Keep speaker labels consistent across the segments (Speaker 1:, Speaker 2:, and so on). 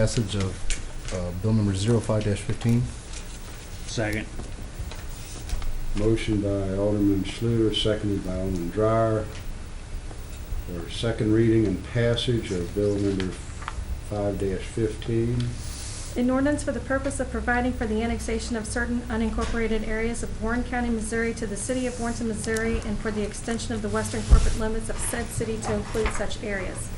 Speaker 1: Passage of uh, Bill number 05-15.
Speaker 2: Second.
Speaker 3: Motion by Alderman Schluter, seconded by Alderman Dreyer, for second reading and passage of bill number five fifteen.
Speaker 4: An ordinance for the purpose of providing for the annexation of certain unincorporated areas of Warren County, Missouri to the city of Warrenton, Missouri, and for the extension of the western corporate limits of said city to include such areas.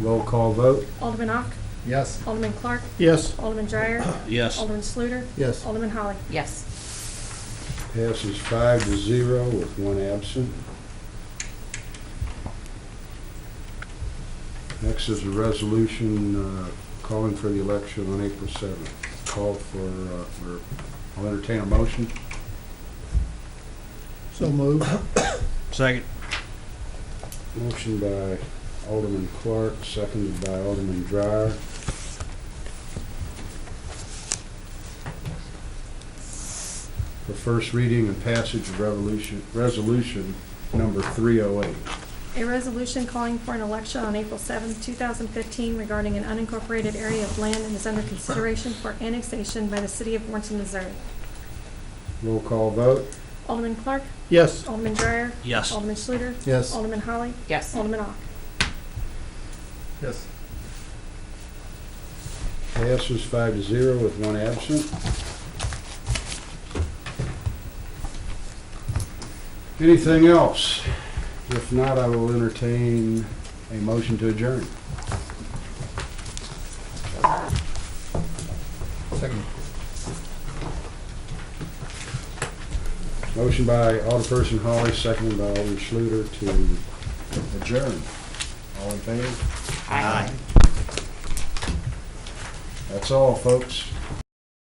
Speaker 3: Roll call vote?
Speaker 4: Alderman Ock,
Speaker 1: Yes.
Speaker 4: Alderman Clark,
Speaker 2: Yes.
Speaker 4: Alderman Dreyer,
Speaker 2: Yes.
Speaker 4: Alderman Sluter,
Speaker 1: Yes.
Speaker 4: Alderman Holly.
Speaker 5: Yes.
Speaker 3: Passes five to zero with one absent. Next is a resolution uh, calling for the election on April 7th. Call for, uh, for- I'll entertain a motion.
Speaker 2: So moved. Second.
Speaker 3: Motion by Alderman Clark, seconded by Alderman Dreyer. For first reading and passage of revolution, resolution number 308.
Speaker 4: A resolution calling for an election on April 7, 2015 regarding an unincorporated area of land and is under consideration for annexation by the city of Warrenton, Missouri.
Speaker 3: Roll call vote.
Speaker 4: Alderman Clark,
Speaker 2: Yes.
Speaker 4: Alderman Dreyer,
Speaker 2: Yes.
Speaker 4: Alderman Schluter,
Speaker 1: Yes.
Speaker 4: Alderman Holly,
Speaker 5: Yes.
Speaker 4: Alderman Ock.
Speaker 1: Yes.
Speaker 3: Passes five to zero with one absent. Anything else? If not, I will entertain a motion to adjourn.
Speaker 1: Second.
Speaker 3: Motion by Alderperson Holly, seconded by Alderman Schluter to adjourn. All in favor?
Speaker 5: Aye.
Speaker 3: That's all, folks.